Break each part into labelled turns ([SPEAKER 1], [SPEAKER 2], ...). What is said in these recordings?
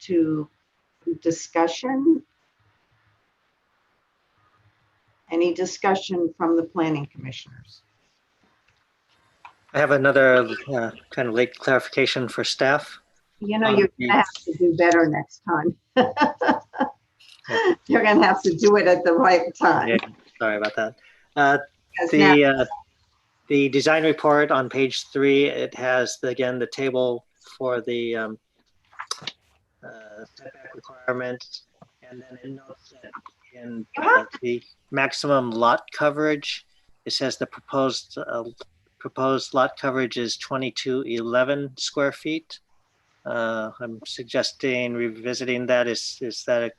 [SPEAKER 1] to discussion? Any discussion from the planning commissioners?
[SPEAKER 2] I have another uh, kind of late clarification for staff.
[SPEAKER 1] You know, you're gonna have to do better next time. You're gonna have to do it at the right
[SPEAKER 2] Yeah,
[SPEAKER 1] time.
[SPEAKER 2] Sorry about that. Uh,
[SPEAKER 1] 'cause now-
[SPEAKER 2] The, uh, the design report on page three, it has, again, the table for the um, uh, setback requirement. And then it notes that in uh, the maximum lot coverage, it says the proposed, uh, proposed lot coverage is 2211 square feet. Uh, I'm suggesting revisiting that. Is, is that, a-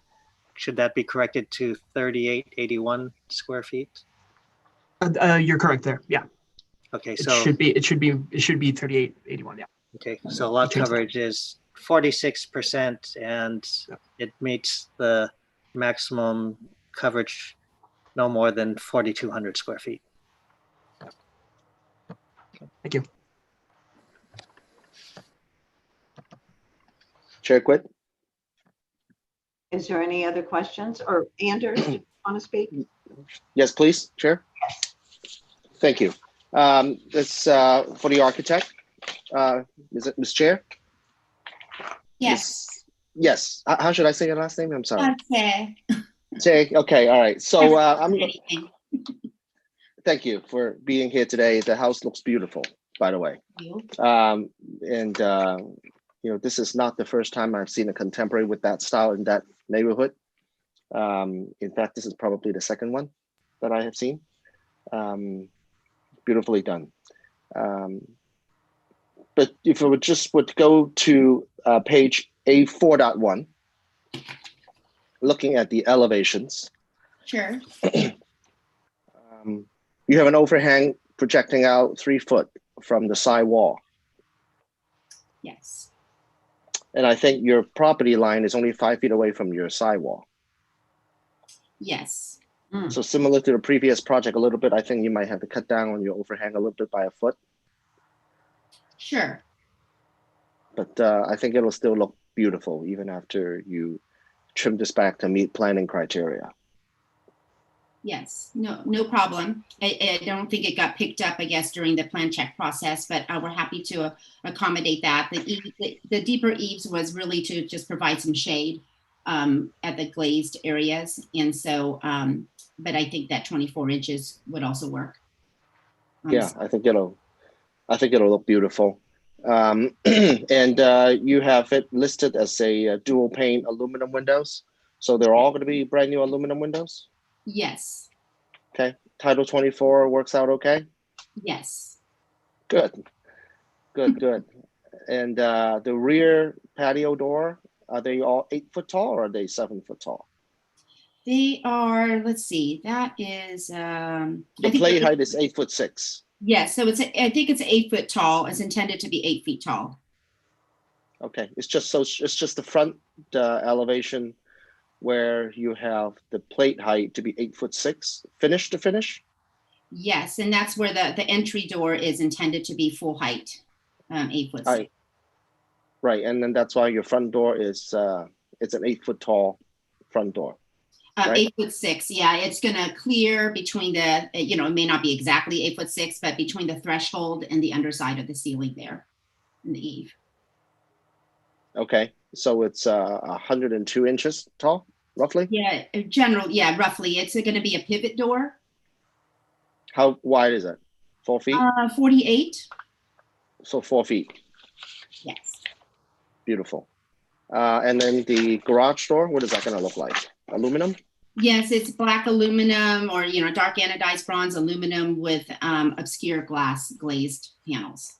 [SPEAKER 2] should that be corrected to 3881 square feet?
[SPEAKER 3] Uh, uh, you're correct there. Yeah,
[SPEAKER 2] Okay,
[SPEAKER 3] it
[SPEAKER 2] so,
[SPEAKER 3] should be. It should be. It should be thirty-eight eighty-one. Yeah.
[SPEAKER 2] okay, so lot
[SPEAKER 3] Change that.
[SPEAKER 2] coverage is forty-six percent and it meets the maximum coverage no more than forty-two hundred square feet.
[SPEAKER 4] Chair Quit?
[SPEAKER 1] Is there any other questions? Or Anders, do you want to speak?
[SPEAKER 4] Yes, please, Chair. Thank you. Um, This, uh, for the architect, uh, is it Ms. Chair?
[SPEAKER 5] Yes,
[SPEAKER 4] Yes, H- how should I say your last name? I'm sorry.
[SPEAKER 5] okay.
[SPEAKER 4] Say, okay, all right. So uh, I'm,
[SPEAKER 5] Anything.
[SPEAKER 4] thank you for being here today. The house looks beautiful, by the way.
[SPEAKER 5] You.
[SPEAKER 4] Um, and, uh, you know, this is not the first time I've seen a contemporary with that style in that neighborhood. Um, in fact, this is probably the second one that I have seen. Um, beautifully done. Um, but if I would just would go to uh, page A4.1, looking at the elevations,
[SPEAKER 5] Sure.
[SPEAKER 4] um, you have an overhang projecting out three foot from the side wall.
[SPEAKER 5] Yes.
[SPEAKER 4] And I think your property line is only five feet away from your sidewall.
[SPEAKER 5] Yes.
[SPEAKER 1] Mm,
[SPEAKER 4] So similar to the previous project a little bit, I think you might have to cut down on your overhang a little bit by a foot,
[SPEAKER 5] Sure.
[SPEAKER 4] but uh, I think it'll still look beautiful even after you trim this back to meet planning criteria.
[SPEAKER 5] Yes. No. No problem. I, I don't think it got picked up. I guess during the plan check process, but uh, we're happy to uh, accommodate that. The, e- the the deeper eaves was really to just provide some shade um, at the glazed areas, and so. Um, but I think that 24 inches would also work. Um,
[SPEAKER 4] Yeah, I think it'll, I think it'll look beautiful. Um, and uh, you have it listed as a uh, dual pane aluminum windows. So they're all going to be brand new aluminum windows.
[SPEAKER 5] Yes.
[SPEAKER 4] Title 24 works out okay.
[SPEAKER 5] Yes.
[SPEAKER 4] Good, good, good. And uh, the rear patio door, are they all eight foot tall or are they seven foot tall?
[SPEAKER 5] They are. Let's see. That is. Um,
[SPEAKER 4] The
[SPEAKER 5] I think
[SPEAKER 4] play
[SPEAKER 5] that-
[SPEAKER 4] height is eight foot six.
[SPEAKER 5] Yes, so it's, I think it's eight foot tall. It's intended to be eight feet tall.
[SPEAKER 4] Okay, it's just so it's just the front uh, elevation where you have the plate height to be eight foot six, finish to finish.
[SPEAKER 5] Yes, and that's where the, the entry door is intended to be full height, um, eight foot.
[SPEAKER 4] Right, right, and then that's why your front door is uh, it's an eight foot tall front door.
[SPEAKER 5] Um,
[SPEAKER 4] right.
[SPEAKER 5] eight foot six, yeah, it's gonna clear between the, you know, it may not be exactly eight foot six, but between the threshold and the underside of the ceiling there in the eave.
[SPEAKER 4] Okay, so it's uh, 102 inches tall, roughly.
[SPEAKER 5] Yeah, in general, yeah, roughly. It's gonna be a pivot door,
[SPEAKER 4] How wide is it? Four feet.
[SPEAKER 5] uh, forty-eight.
[SPEAKER 4] so four feet.
[SPEAKER 5] Yes,
[SPEAKER 4] Beautiful. Uh, and then the garage door, what is that gonna look like? Aluminum?
[SPEAKER 5] yes, it's black aluminum or, you know, dark anodized bronze aluminum with, um, obscure glass glazed panels.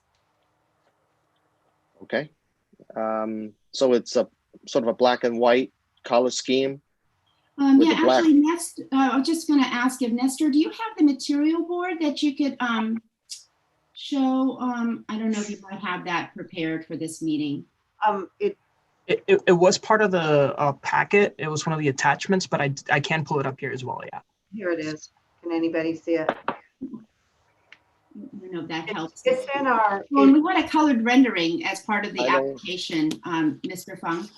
[SPEAKER 4] Okay. Um, so it's a sort of a black and white color scheme.
[SPEAKER 5] Um,
[SPEAKER 4] with
[SPEAKER 5] yeah,
[SPEAKER 4] the black.
[SPEAKER 5] actually, Nest, uh, I was just gonna ask if Nestor, do you have the material board that you could, um, show, um, I don't know if you might have that prepared for this meeting.
[SPEAKER 1] Um, it,
[SPEAKER 3] It, it, it was part of the uh, packet. It was one of the attachments, but I I can pull it up here as well. Yeah.
[SPEAKER 1] here it is. Can anybody see it?
[SPEAKER 5] I don't know if that
[SPEAKER 1] It's
[SPEAKER 5] helps.
[SPEAKER 1] it's in our,
[SPEAKER 5] Well, and we want a colored rendering as part of the
[SPEAKER 4] I don't-
[SPEAKER 5] application, um, Mr. Fung.